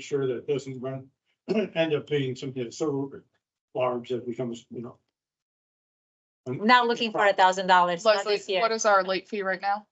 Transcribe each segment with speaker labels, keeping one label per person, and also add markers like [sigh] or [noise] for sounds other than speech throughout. Speaker 1: sure that it doesn't run, [clears throat] end up being something so large that becomes, you know.
Speaker 2: Not looking for a thousand dollars, not
Speaker 3: Leslie,
Speaker 2: this year.
Speaker 3: what is our late fee right now?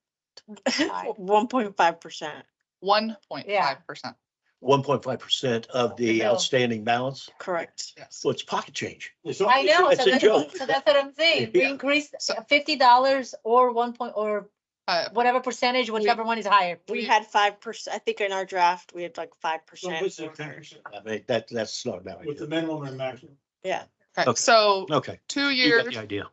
Speaker 2: [laughs]
Speaker 4: One point five percent.
Speaker 3: One point five percent.
Speaker 5: one point five percent of
Speaker 3: The
Speaker 5: the
Speaker 3: bill.
Speaker 5: outstanding balance.
Speaker 4: Correct.
Speaker 3: Yes.
Speaker 5: Well, it's pocket change.
Speaker 1: It's all-
Speaker 2: I know,
Speaker 5: It's
Speaker 2: so
Speaker 5: a
Speaker 2: that's,
Speaker 5: joke.
Speaker 2: so that's what I'm saying. We
Speaker 5: Yeah.
Speaker 2: increased
Speaker 3: So-
Speaker 2: fifty dollars or one point, or
Speaker 3: Uh,
Speaker 2: whatever percentage, whichever one is higher.
Speaker 4: We had five percent, I think in our draft, we had like five
Speaker 1: Well,
Speaker 4: percent.
Speaker 1: With the-
Speaker 5: I mean, that, that's not about
Speaker 1: with the
Speaker 5: it.
Speaker 1: minimum and maximum.
Speaker 3: okay,
Speaker 5: Okay.
Speaker 3: so
Speaker 5: Okay.
Speaker 3: two
Speaker 5: You got
Speaker 3: years,
Speaker 5: the idea.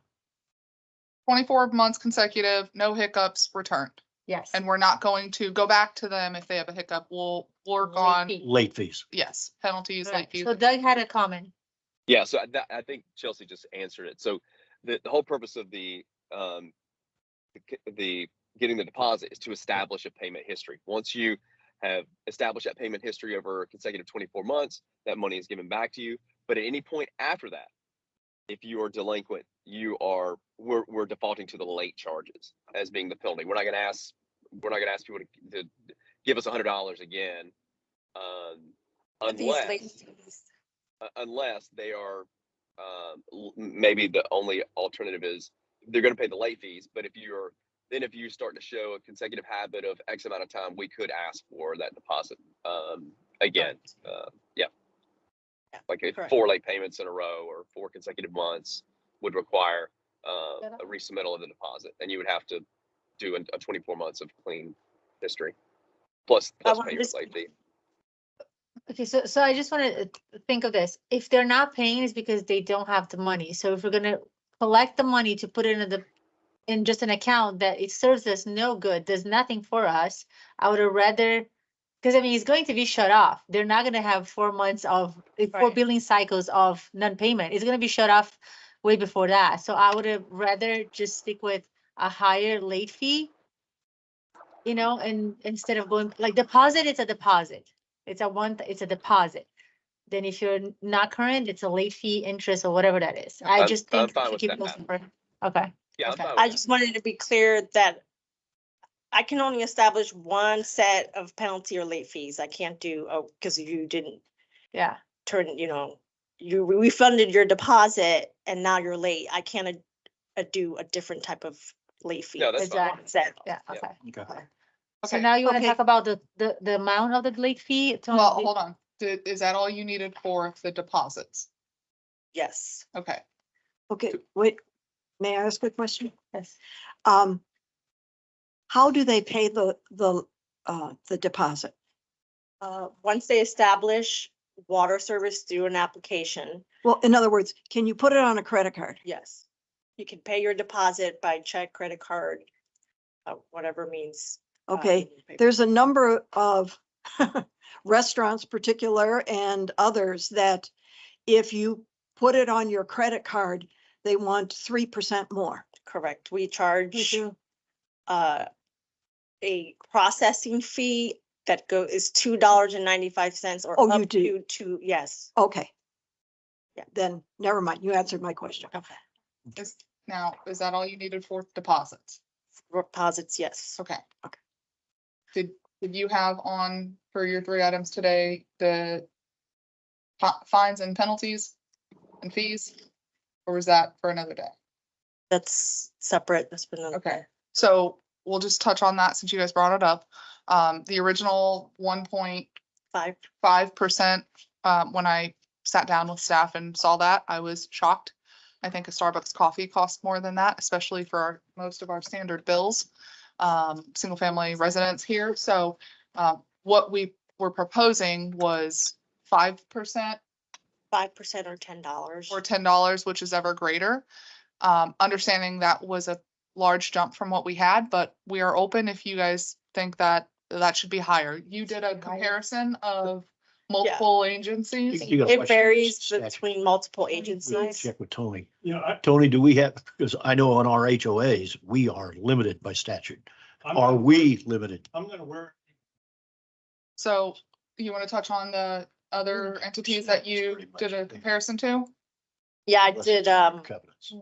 Speaker 3: twenty-four months consecutive, no hiccups returned.
Speaker 2: Yes.
Speaker 3: And we're not going to go back to them if they have a hiccup. We'll work on,
Speaker 2: Repeat.
Speaker 5: Late fees.
Speaker 3: yes, penalties, late
Speaker 2: Right.
Speaker 3: fees.
Speaker 2: So Doug had a comment.
Speaker 6: Yeah, so I- that, I think Chelsea just answered it. So the, the whole purpose of the, um, the c- the, getting the deposit is to establish a payment history. Once you have established that payment history over a consecutive twenty-four months, that money is given back to you. But at any point after that, if you are delinquent, you are, we're, we're defaulting to the late charges as being the penalty. We're not gonna ask, we're not gonna ask people to, to give us a hundred dollars again. Um, unless uh, unless they are um, l- maybe the only alternative is they're going to pay the late fees. But if you're then if you start to show a consecutive habit of X amount of time, we could ask for that deposit um, again. Uh, yeah,
Speaker 4: Yeah,
Speaker 6: like if
Speaker 4: correct.
Speaker 6: four late payments in a row or four consecutive months would require uh,
Speaker 2: Set up.
Speaker 6: a resubmittal of the deposit, and you would have to do a, a 24 months of clean history plus plus
Speaker 4: want
Speaker 6: pay your
Speaker 4: this-
Speaker 6: late fee.
Speaker 2: Okay, so, so I just wanna uh, think of this. If they're not paying, it's because they don't have the money. So if we're gonna collect the money to put it in the, in just an account that it serves us no good, does nothing for us, I would have rather, because I mean, it's going to be shut off. They're not gonna have four months of, eh, four
Speaker 4: Right.
Speaker 2: billing cycles of non-payment. It's gonna be shut off way before that. So I would have rather just stick with a higher late fee. You know, and instead of going, like deposit, it's a deposit. It's a one, it's a deposit. Then if you're n- not current, it's a late fee interest or whatever that is. I
Speaker 6: I'm-
Speaker 2: just think.
Speaker 6: I'm
Speaker 2: we
Speaker 6: fine
Speaker 2: should
Speaker 6: with
Speaker 2: keep
Speaker 6: that,
Speaker 2: those
Speaker 6: Matt.
Speaker 2: separate. Okay,
Speaker 6: Yeah, I'm
Speaker 2: Okay.
Speaker 6: fine with
Speaker 4: I
Speaker 6: that.
Speaker 4: just wanted to be clear that I can only establish one set of penalty or late fees. I can't do, oh, because you didn't
Speaker 2: yeah,
Speaker 4: turn, you know, you refunded your deposit and now you're late. I can't a- a- do a different type of late fee.
Speaker 6: No, that's fine.
Speaker 4: That's that.
Speaker 2: yeah,
Speaker 6: Yeah.
Speaker 2: okay.
Speaker 5: Okay.
Speaker 2: So
Speaker 3: Okay,
Speaker 2: now you wanna
Speaker 4: Okay.
Speaker 2: talk about the, the, the amount of the late fee? Tony?
Speaker 3: well, hold on. Did, is that all you needed for the deposits?
Speaker 4: Yes.
Speaker 3: Okay.
Speaker 7: Okay, wait, may I ask a question?
Speaker 2: Yes.
Speaker 7: Um, how do they pay the, the, uh, the deposit?
Speaker 4: Uh, once they establish water service through an application,
Speaker 7: Well, in other words, can you put it on a credit card?
Speaker 4: yes. You can pay your deposit by check, credit card, uh, whatever means. uh,
Speaker 7: Okay,
Speaker 4: you pay.
Speaker 7: there's a number of [laughs] restaurants particular and others that if you put it on your credit card, they want three percent more.
Speaker 4: Correct. We charge uh, a processing fee that go is two dollars and ninety-five cents or
Speaker 7: Oh, you
Speaker 4: up
Speaker 7: do.
Speaker 4: to two, yes.
Speaker 7: Okay.
Speaker 4: Yeah.
Speaker 7: Then, never mind, you answered my question.
Speaker 4: Okay.
Speaker 3: Is, now, is that all you needed for deposits?
Speaker 4: Deposits, yes.
Speaker 3: Okay.
Speaker 7: Okay.
Speaker 3: Did, did you have on for your three items today, the fi- fines and penalties and fees? Or was that for another day?
Speaker 4: That's separate. That's been. another-
Speaker 3: Okay, so we'll just touch on that since you guys brought it up. Um, the original one point
Speaker 4: Five.
Speaker 3: five percent, um, when I sat down with staff and saw that, I was shocked. I think a Starbucks coffee costs more than that, especially for our- most of our standard bills, um, single family residents here. So, uh, what we were proposing was five percent
Speaker 4: five percent or ten dollars.
Speaker 3: or ten dollars, which is ever greater. Um, understanding that was a large jump from what we had, but we are open if you guys think that that should be higher. You did a comparison of multiple agencies.
Speaker 5: You- you got a
Speaker 4: It
Speaker 5: question?
Speaker 4: varies
Speaker 5: Statute.
Speaker 4: between multiple
Speaker 5: We'll
Speaker 4: agencies.
Speaker 5: Check with Tony.
Speaker 1: You know, I,
Speaker 5: Tony, do we have, because I know on our HOAs, we are limited by statute.
Speaker 1: I'm,
Speaker 5: Are
Speaker 1: not-
Speaker 5: we limited?
Speaker 1: I'm gonna wear,
Speaker 3: So you want to touch on the other entities that you
Speaker 5: Pretty much,
Speaker 3: did
Speaker 5: yeah.
Speaker 3: a comparison to?
Speaker 4: Yeah, I
Speaker 5: Unless
Speaker 4: did,
Speaker 5: it's
Speaker 4: um,
Speaker 5: Covenants.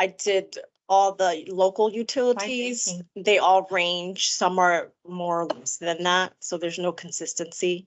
Speaker 4: I did all the local utilities.
Speaker 2: thinking.
Speaker 4: They all range. Some are more or less than that, so there's no consistency.